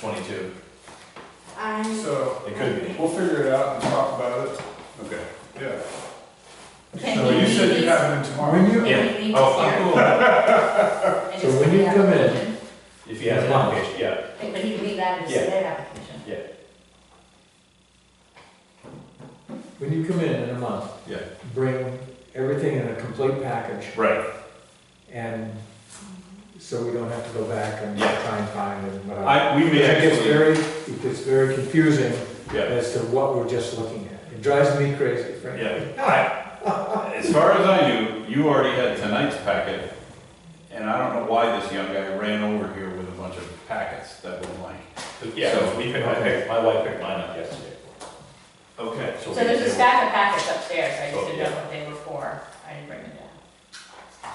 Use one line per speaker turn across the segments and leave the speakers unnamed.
twenty-two.
I'm,
So,
It could be.
we'll figure it out and talk about it,
Okay.
yeah.
can
So
you
you said
meet
you
us?
have them
When
tomorrow?
you,
Yeah.
Can you meet
Oh,
us here?
cool.
And
So
just
when
put
you
the
come in-
application?
If he has an application, yeah.
But he can leave that as
Yeah.
their application.
when you come in in a month.
Yeah.
Bring everything in a complete package
Right.
and so we don't have to go back and
Yeah.
try and find and whatever.
I, we may
It gets
actually,
very, it gets very confusing
yeah,
as to what we're just looking at. It drives me crazy, frankly.
yeah. All right.
As far as I knew, you already had tonight's packet, and I don't know why this young guy ran over here with a bunch of packets that were blank.
Yeah, we picked, I picked, my wife picked mine up yesterday. Okay.
So there's a stack of packets upstairs, I just didn't know what they were for, I didn't bring them down.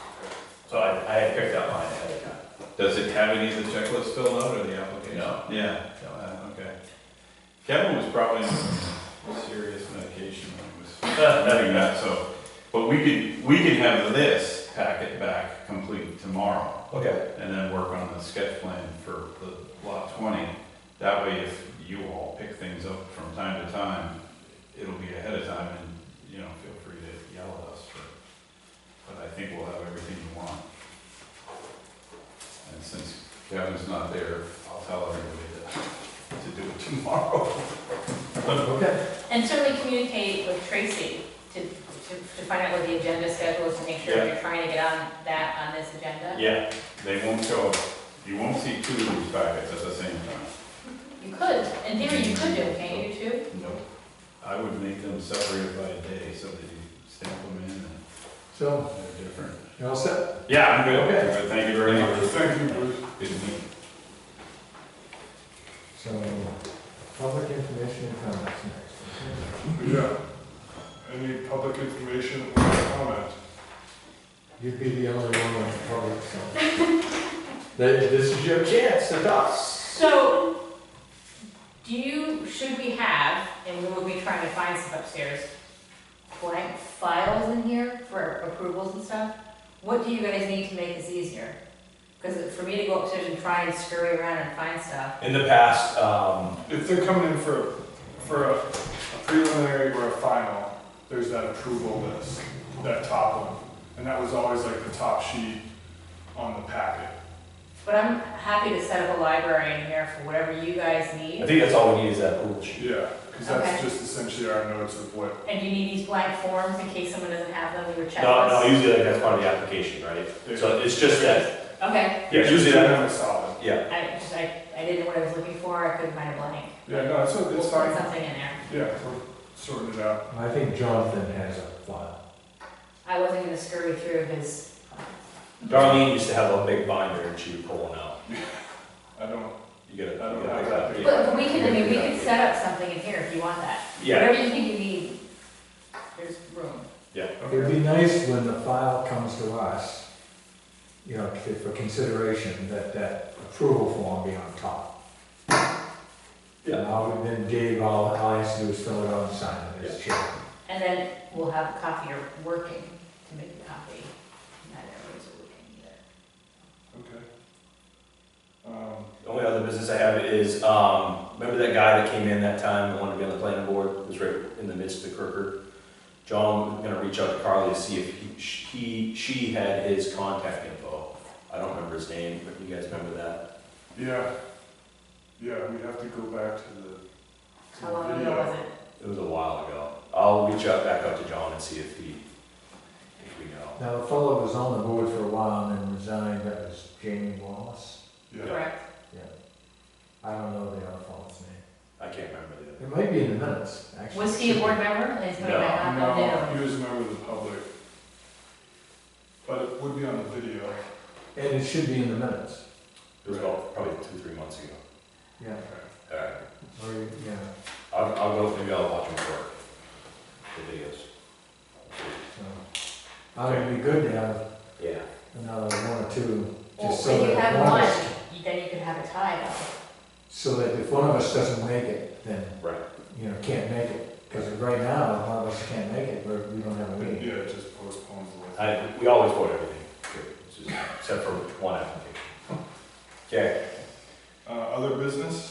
So I, I had picked up mine ahead of time.
Does it have any of the checklists filled out or the application?
No.
Yeah, uh, okay. Kevin was probably on some serious medication when he was doing that, so, but we could, we could have this packet back complete tomorrow.
Okay.
and then work on the sketch plan for the lot twenty. That way, if you all pick things up from time to time, it'll be ahead of time and, you know, feel free to yell at us for, but I think we'll have everything you want. And since Kevin's not there, I'll tell everybody to, to do it tomorrow.
Okay.
And certainly communicate with Tracy to, to, to find out what the agenda schedule is, to make sure
Yeah.
you're trying to get on that, on this agenda.
Yeah,
They won't show, you won't see two of these packets at the same time.
You could, in theory, you could do, it, can't you, too?
Nope. I would make them separated by a day so that you stamp them in and
So,
they're different.
you all set?
Yeah, I'm good, okay, thank you very much.
Thank you, Bruce.
Good meeting.
So, public information and comments next.
Yeah. Any public information or comment?
okay? You'd be the only one on public, so. Th- This is your chance to talk.
So, do you, should we have, and we will be trying to find some upstairs, blank files in here for approvals and stuff? What do you guys need to make this easier? Because for me to go upstairs and try and scurry around and find stuff,
in the past, um,
If they're coming in for, for a a preliminary or a final, there's that approval list, that top one. And that was always like the top sheet on the packet.
but I'm happy to set up a library in here for whatever you guys
I
need.
think that's all we need is that pool sheet.
Yeah, because
Okay.
that's just essentially our notes of what,
And do you need these blank forms in case someone doesn't have them, your
No, no,
checklist?
usually like that's part of the application, right? So it's just that,
Okay,
yeah, usually that,
was solid.
yeah,
I just, I, I didn't know what I was looking for, I couldn't find a blank.
Yeah, no, it's,
We'll
it's
put
fine.
Something in there.
Yeah, we're sorting it out.
I think Jonathan has a file.
I wasn't gonna scurry through his,
Darlene used to have a big binder and she would pull one out.
I don't,
You gotta, you
I don't
gotta
have
pick
that
that.
big.
but we can, I mean, we could set up something in here if you want that.
Yeah,
Whatever you think you need, there's room.
It'd be nice when the file comes to us, you know, c- for consideration, that that approval form be on top.
Yeah.
Now, then Dave, all I has to do is fill it out and sign it as chair.
And then we'll have a copier working to make the copy. Not everyone's working either.
okay. Um,
the only other business I have is, um, remember that guy that came in that time, that wanted to be on the planning board, was right in the midst of the Kirker? John, was gonna reach out to Carly to see if he, she, she had his contact info. I don't remember his name, but you guys remember that?
yeah, yeah, we have to go back to the. to
How
the
long
video.
ago was it?
It was a while ago. I'll reach out back out to John and see if he, if we know.
Now, the fellow was on the board for a while and then resigned, that was Jamie Wallace.
Yeah,
Correct.
I don't know the other fellow's name.
I can't remember the other.
It might be in the minutes, actually.
Was he a board member? And he's going
No,
back on, no,
no, he was a member of the public. But it would be on the video.
And it should be in the minutes,
It was about probably two, three months ago.
yeah,
All right.
or, yeah,
I'll, I'll go, maybe I'll watch him work, the videos.
so. I mean, it'd be good to have
Yeah.
another one or two,
Well,
just so
if
that.
you have
one of us-
one, then you could have a tie up.
So that if one of us doesn't make it, then,
Right.
you know, can't make it. Because right now, if one of us can't make it, we're, we don't have a meeting.
Yeah, it just postpones the.
I, we always vote everything, It's just- except for one application. Okay.
Uh, other business?